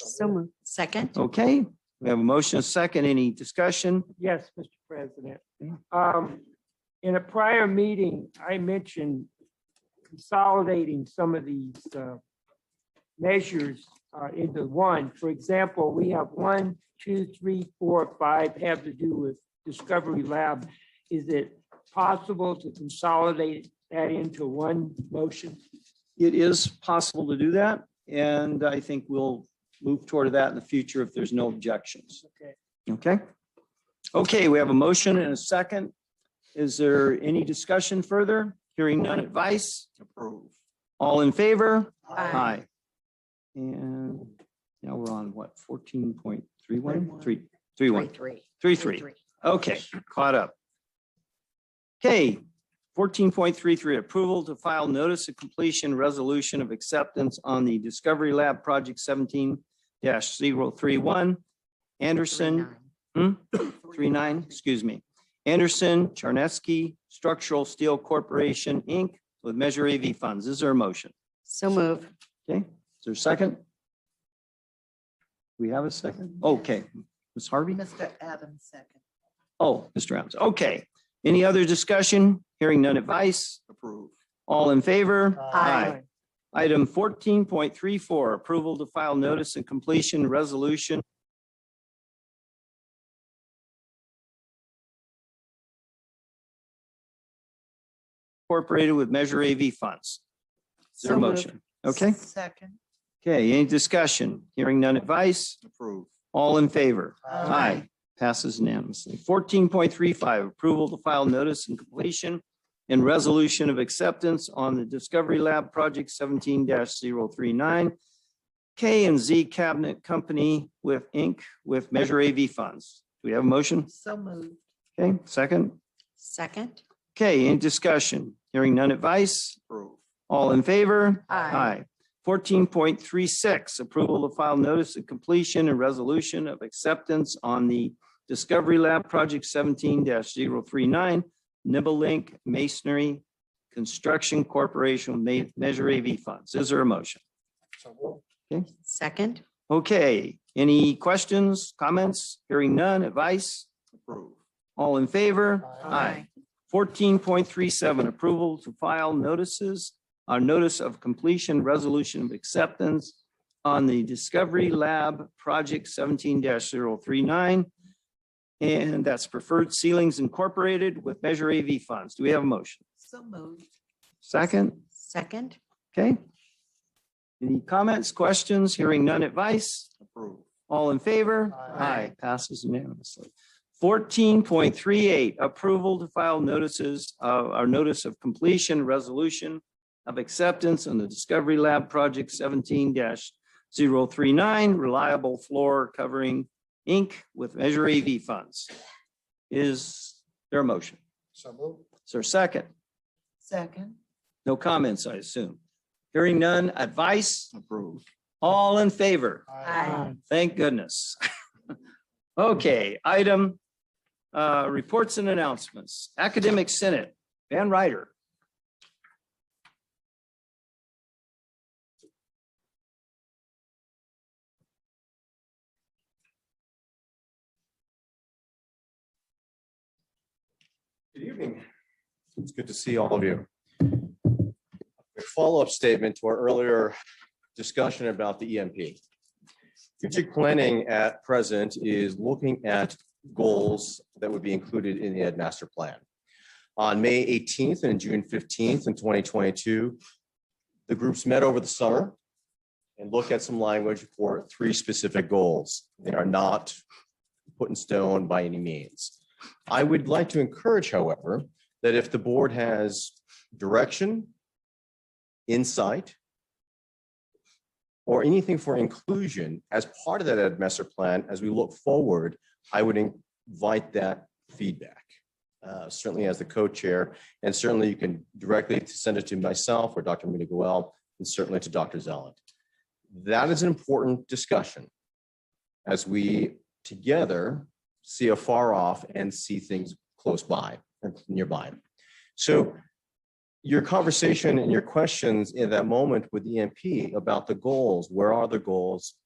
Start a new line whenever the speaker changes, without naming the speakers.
So moved. Second?
Okay, we have a motion, a second, any discussion?
Yes, Mr. President. Um, In a prior meeting, I mentioned consolidating some of these uh, measures uh, into one. For example, we have one, two, three, four, five have to do with Discovery Lab. Is it possible to consolidate that into one motion?
It is possible to do that, and I think we'll move toward that in the future if there's no objections.
Okay.
Okay? Okay, we have a motion and a second. Is there any discussion further? Hearing none advice? Approve. All in favor? Aye. And now we're on what, fourteen point three one, three, three one,
Three.
three three. Okay, caught up. Okay, fourteen point three three, approval to file notice of completion resolution of acceptance on the Discovery Lab Project seventeen 31 Anderson, hmm? three nine, excuse me, Anderson Charneski Structural Steel Corporation, Inc. with Measure AV Funds. Is there a motion?
So moved.
Okay, is there a second? We have a second? Okay, Ms. Harvey?
Mr. Adams, second.
Oh, Mr. Adams, okay. Any other discussion? Hearing none advice? Approved. All in favor?
Aye.
Item fourteen point three four, approval to file notice and completion resolution. Incorporated with Measure AV funds. Is there a
So moved.
motion? Okay,
Second.
okay, any discussion? Hearing none advice? Approved. All in favor? Aye. Passes unanimously. Fourteen point three five, approval to file notice and completion and resolution of acceptance on the Discovery Lab Project seventeen 39 K and Z Cabinet Company with Inc. with Measure AV Funds. Do we have a motion?
So moved.
Okay, second.
Second?
Okay, any discussion? Hearing none advice? All in favor? Aye. Fourteen point three six, approval to file notice of completion and resolution of acceptance on the Discovery Lab Project seventeen 39 Nibble Link Masonry Construction Corporation Ma- Measure AV Funds. Is there a motion?
Second?
Okay, any questions, comments? Hearing none, advice? All in favor? Fourteen point three seven, approval to file notices, uh, notice of completion, resolution of acceptance on the Discovery Lab Project seventeen 39 And that's Preferred Ceilings Incorporated with Measure AV Funds. Do we have a motion?
So moved.
Second,
Second?
okay? Any comments, questions? Hearing none advice? All in favor?
Aye.
Passes unanimously. Fourteen point three eight, approval to file notices, uh, our notice of completion, resolution of acceptance on the Discovery Lab Project seventeen 39 reliable floor covering Inc. with Measure AV funds. Is there a motion? Is there a second?
Second.
No comments, I assume. Hearing none, advice? Approved. All in favor?
Aye.
Thank goodness. Okay, item, uh, reports and announcements. Academic Senate, Van Ryder.
Good evening. It's good to see all of you. A Follow-up statement to our earlier discussion about the EMP. Strategic planning at present is looking at goals that would be included in the Ed Master Plan. On May eighteenth and June fifteenth in twenty twenty-two, the groups met over the summer and looked at some language for three specific goals. They are not put in stone by any means. I would like to encourage, however, that if the board has direction, insight, or anything for inclusion as part of that Ed Master Plan, as we look forward, I would invite that feedback. Uh, Certainly as the co-chair, and certainly you can directly send it to myself or Dr. Mina Goel, and certainly to Dr. Zeland. That is an important discussion as we together see afar off and see things close by and nearby. So your E conversation and your questions in that moment with EMP about the goals, where are the goals?